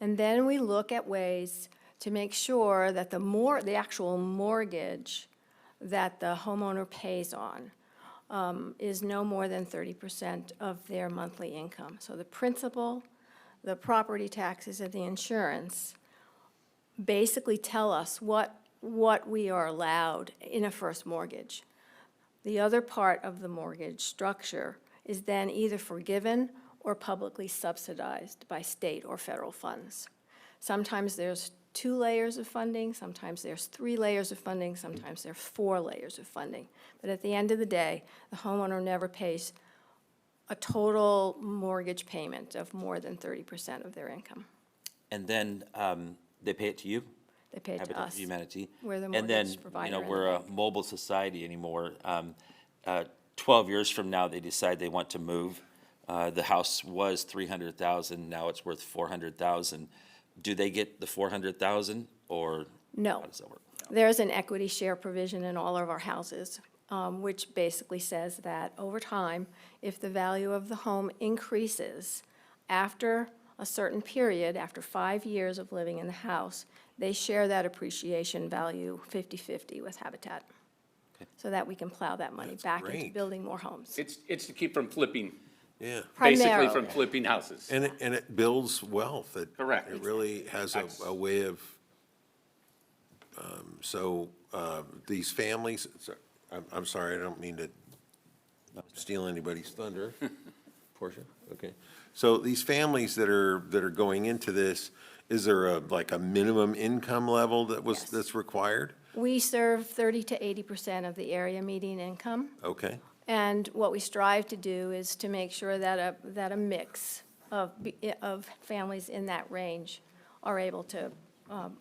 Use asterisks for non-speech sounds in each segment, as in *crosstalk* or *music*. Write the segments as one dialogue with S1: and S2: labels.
S1: And then we look at ways to make sure that the more, the actual mortgage that the homeowner pays on um, is no more than thirty percent of their monthly income. So the principal, the property taxes, and the insurance basically tell us what, what we are allowed in a first mortgage. The other part of the mortgage structure is then either forgiven or publicly subsidized by state or federal funds. Sometimes there's two layers of funding, sometimes there's three layers of funding, sometimes there are four layers of funding. But at the end of the day, the homeowner never pays a total mortgage payment of more than 30% of their income.
S2: And then um, they pay it to you?
S1: They pay it to
S2: Habitat
S1: us.
S2: for Humanity.
S1: We're the mortgage provider and
S2: And then, you know,
S1: the
S2: we're a mobile society anymore. Um, uh, Twelve years from now, they decide they want to move. Uh, The house was three hundred thousand, now it's worth four hundred thousand. Do they get the four hundred thousand or?
S1: No.
S2: How does that work?
S1: There's an equity share provision in all of our houses, um, which basically says that over time, if the value of the home increases after a certain period, after five years of living in the house, they share that appreciation value 50/50 with Habitat, so that we can plow that money back into
S3: great.
S1: building more homes.
S4: It's, it's to keep from flipping,
S3: Yeah,
S4: basically
S1: Primarily.
S4: from flipping houses.
S3: and it, and it builds wealth. It-
S4: Correct.
S3: It really has a, a way of, um, so, um, these families, so- I'm, I'm sorry, I don't mean to steal anybody's thunder. Portia, okay. So these families that are, that are going into this, is there a, like a minimum income level that was,
S1: Yes.
S3: that's required?
S1: We serve 30 to 80% of the area median income.
S3: Okay,
S1: And what we strive to do is to make sure that a, that a mix of, be- of families in that range are able to um,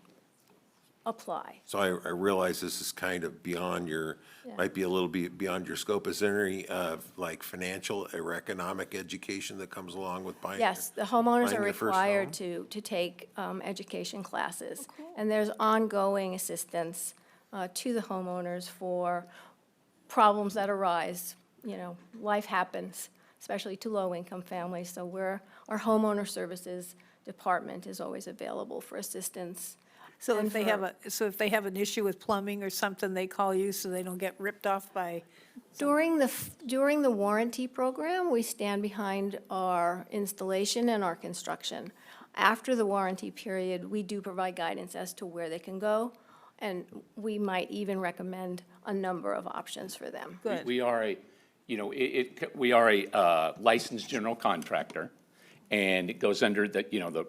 S1: apply.
S3: so I, I realize this is kind of beyond your,
S1: Yeah.
S3: might be a little bit beyond your scope. Is there any, uh, like financial or economic education that comes along with buying? your-
S1: Yes, the homeowners are
S3: Buying their first
S1: required
S3: home?
S1: to, to take um, education classes. And there's ongoing assistance uh, to the homeowners for problems that arise. You know, life happens, especially to low-income families. So we're, our homeowner services department is always available for assistance.
S5: So
S1: And
S5: if they have
S1: for-
S5: a, so if they have an issue with plumbing or something, they call you so they don't get ripped off by,
S1: During the, f- during the warranty program, we stand behind our installation and our construction. After the warranty period, we do provide guidance as to where they can go, and we might even recommend a number of options for them.
S4: We-
S5: good.
S4: We are a, you know, it, it, c- we are a uh, licensed general contractor, and it goes under the, you know, the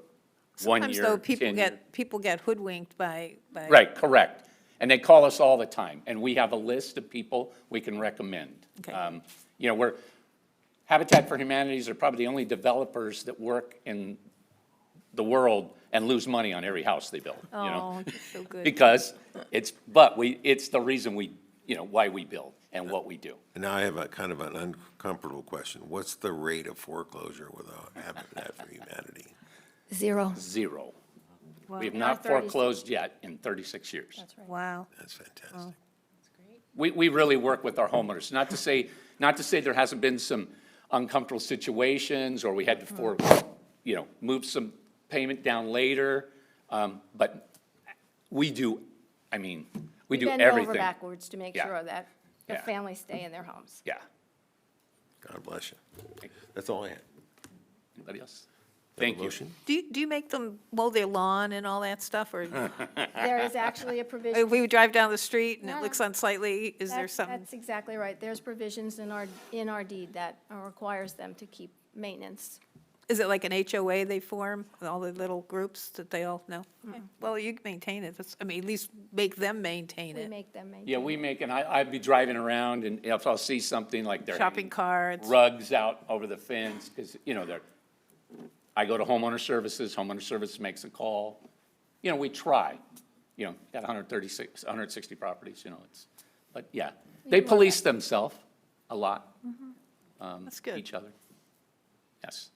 S4: one year.
S5: Sometimes though, people
S4: 10 year-
S5: get, people get hoodwinked by, by.
S4: Right, correct. And they call us all the time, and we have a list of people we can recommend.
S5: Okay.
S4: Um, You know, we're, Habitat for Humanities are probably the only developers that work in the world and lose money on every house they build, you know?
S5: Oh,
S4: *laughs*
S5: so good.
S4: Because it's, but we, it's the reason we, you know, why we build and what we do.
S3: And now I have a kind of an uncomfortable question. What's the rate of foreclosure without Habitat for Humanity?
S1: Zero.
S4: Zero. We have
S5: Wow.
S4: not
S1: Our 36
S4: foreclosed yet in 36 years.
S5: Wow.
S3: That's fantastic.
S4: We, we really work with our homeowners, not to say, not to say there hasn't been some uncomfortable situations, or we had to for, you know, move some payment down later, um, but we do, I mean, we do
S1: Bend over
S4: everything.
S1: backwards to make
S4: Yeah.
S1: sure that the
S4: Yeah.
S1: families stay in their
S4: *laughs*
S1: homes.
S4: Yeah.
S3: God bless you. That's all I had.
S4: Anybody else? Thank you.
S3: Motion?
S5: Do you, do you make them mow their lawn and all that stuff? Or
S1: There is actually a provision.
S5: if we drive down the street and
S1: No.
S5: it looks unsightly, is there
S1: That's-
S5: something?
S1: That's exactly right. There's provisions in our, in our deed that uh, requires them to keep maintenance.
S5: Is it like an HOA they form, with all the little groups that they all know? Well, you can maintain it, That's- I mean, at least make them maintain
S1: We
S5: it.
S1: make them maintain.
S4: Yeah, we make, and I, I'd be driving around, and if I'll see something like they're
S5: Shopping
S4: hanging
S5: carts.
S4: rugs out over the fence, because, you know, they're, I go to homeowner services, homeowner service makes a call. You know, we try, you know, got hundred thirty-six, hundred sixty properties, you know, it's, but yeah. They police themselves a lot,
S5: Mm-hmm.
S4: um,
S5: That's good.
S4: each other. Yes.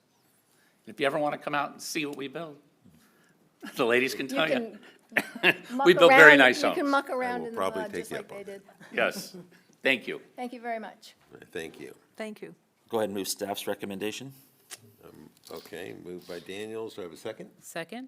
S4: If you ever want to come out and see what we build, the ladies can
S1: You
S4: tell you. *laughs*
S1: can muck
S4: We built very
S1: around-
S4: nice
S1: You can
S4: homes.
S1: muck around
S3: will
S1: in the
S3: probably
S1: mud
S3: take
S1: just
S3: you
S1: like
S3: up on
S1: they did.
S4: Yes, thank you.
S1: Thank you very much.
S3: Thank you.
S5: Thank you.
S2: Go ahead and move staff's recommendation.
S3: Okay, moved by Daniels. Do I have a second?
S6: Second?